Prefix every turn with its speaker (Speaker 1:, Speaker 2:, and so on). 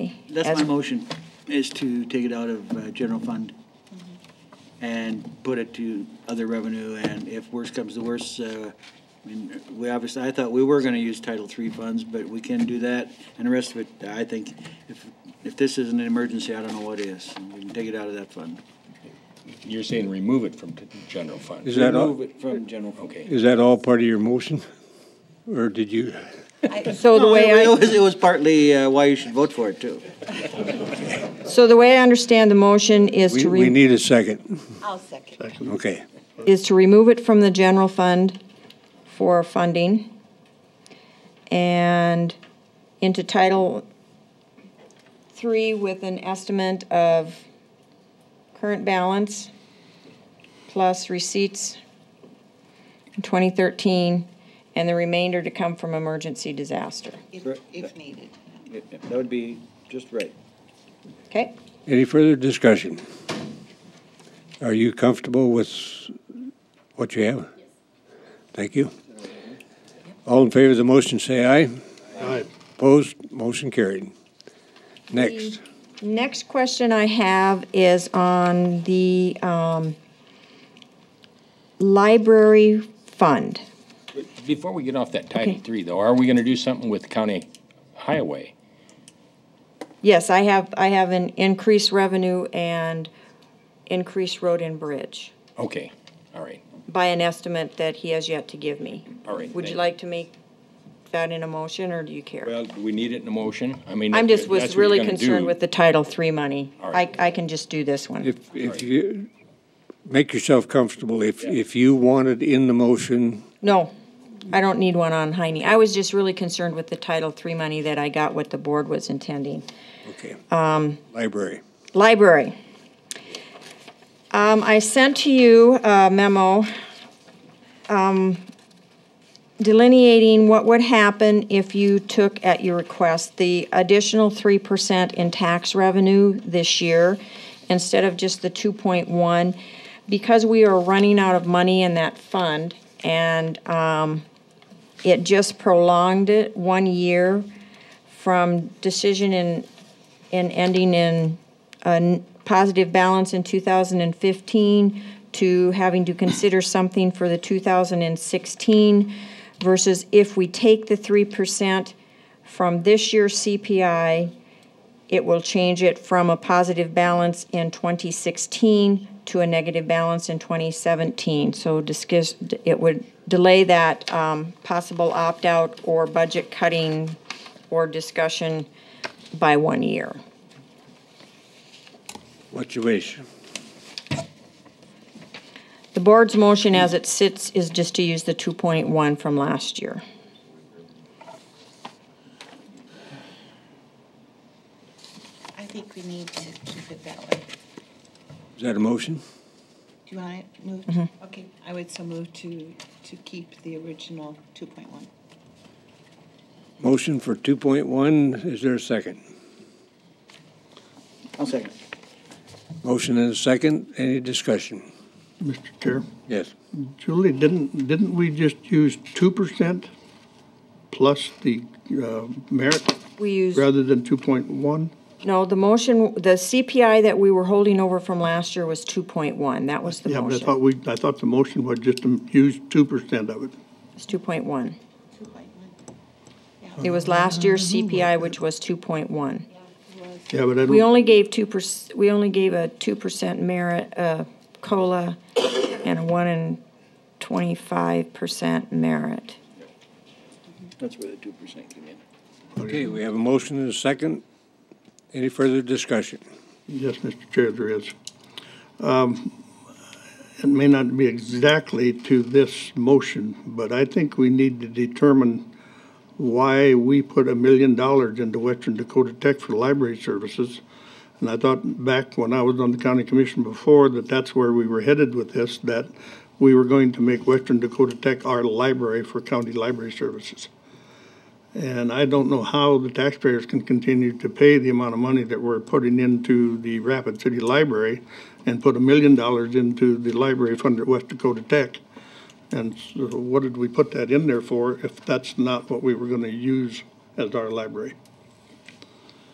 Speaker 1: That's
Speaker 2: As-
Speaker 1: my motion, is to take it out of uh, general fund
Speaker 2: Mm-hmm.
Speaker 1: and put it to other revenue, and if worse comes to worse, uh, I mean, we obviously, I thought we were gonna use Title III funds, but we can do that, and the rest of it, I think, if, if this isn't an emergency, I don't know what is. We can take it out of that fund.
Speaker 3: You're saying remove it from t- general fund?
Speaker 4: Is that all,
Speaker 1: Remove it from general fund.
Speaker 3: Okay.
Speaker 4: is that all part of your motion? Or did you,
Speaker 2: So the way I,
Speaker 1: It was, it was partly uh, why you should vote for it, too.
Speaker 2: so the way I understand the motion is
Speaker 4: we,
Speaker 2: to
Speaker 4: we
Speaker 2: re,
Speaker 4: need a second.
Speaker 5: I'll second.
Speaker 4: Okay.
Speaker 2: is to remove it from the general fund for funding and into Title Three with an estimate of current balance plus receipts in 2013 and the remainder to come from emergency disaster.
Speaker 5: If, if needed.
Speaker 1: That would be just right.
Speaker 2: Okay?
Speaker 4: Any further discussion? Are you comfortable with what you have? Thank you. All in favor of the motion, say aye. Aye. Opposed, motion carried. Next,
Speaker 2: Next question I have is on the um, library fund.
Speaker 3: Before we get off that Title III though, are we gonna do something with county highway?
Speaker 2: Yes, I have, I have an increased revenue and increased road and bridge
Speaker 3: Okay, all right.
Speaker 2: by an estimate that he has yet to give me.
Speaker 3: All right,
Speaker 2: Would you
Speaker 3: thank you.
Speaker 2: like to make that in a motion, or do you care?
Speaker 3: Well, do we need it in a motion? I mean.
Speaker 2: I'm
Speaker 3: if
Speaker 2: just,
Speaker 3: that's
Speaker 2: was
Speaker 3: what you're
Speaker 2: really
Speaker 3: gonna
Speaker 2: concerned
Speaker 3: do-
Speaker 2: with the Title III money.
Speaker 3: All
Speaker 2: I,
Speaker 3: right.
Speaker 2: I can just do this one.
Speaker 4: if, if you, make yourself comfortable. If, if you wanted in the motion,
Speaker 2: No, I don't need one on Heine. I was just really concerned with the Title III money that I got what the board was intending.
Speaker 4: okay.
Speaker 2: Um,
Speaker 4: Library.
Speaker 2: Library. Um, I sent to you a memo, um, delineating what would happen if you took at your request the additional three percent in tax revenue this year instead of just the two point one. Because we are running out of money in that fund and, um, it just prolonged it one year from decision in, in ending in positive balance in 2015 to having to consider something for the 2016 versus if we take the 3% from this year's CPI, it will change it from a positive balance in 2016 to a negative balance in 2017. So discuss, it would delay that um, possible opt-out or budget cutting or discussion by one year.
Speaker 4: What's your wish?
Speaker 2: The board's motion as it sits is just to use the 2.1 from last year.
Speaker 5: I think we need to keep it that way.
Speaker 4: Is that a motion?
Speaker 5: Do you want to move? Okay, I would so move to, to keep the original two point one.
Speaker 4: Motion for 2.1, is there a second?
Speaker 1: I'll second.
Speaker 4: Motion and a second, any discussion?
Speaker 6: Mr. Chair,
Speaker 4: Yes.
Speaker 6: Julie, didn't, didn't we just use two percent plus the uh, merit
Speaker 2: We use,
Speaker 6: rather than two point one?
Speaker 2: no, the motion, the CPI that we were holding over from last year was 2.1. That was the
Speaker 6: Yeah, but I
Speaker 2: motion.
Speaker 6: thought we, I thought the motion was just to use two percent of it.
Speaker 2: It's 2.1.
Speaker 5: Two point one.
Speaker 2: It was last year's CPI, which was 2.1.
Speaker 6: Yeah, but I
Speaker 2: We
Speaker 6: don't,
Speaker 2: only gave 2%, we only gave a 2% merit, uh, COLA and a 1 and 25% merit.
Speaker 1: That's where the two percent came in.
Speaker 4: Okay, we have a motion and a second. Any further discussion?
Speaker 6: yes, Mr. Chair, there is. Um, It may not be exactly to this motion, but I think we need to determine why we put a million dollars into Western Dakota Tech for library services. And I thought back when I was on the county commission before that that's where we were headed with this, that we were going to make Western Dakota Tech our library for county library services. And I don't know how the taxpayers can continue to pay the amount of money that we're putting into the Rapid City Library and put a million dollars into the library fund at West Dakota Tech. And so what did we put that in there for if that's not what we were gonna use as our library?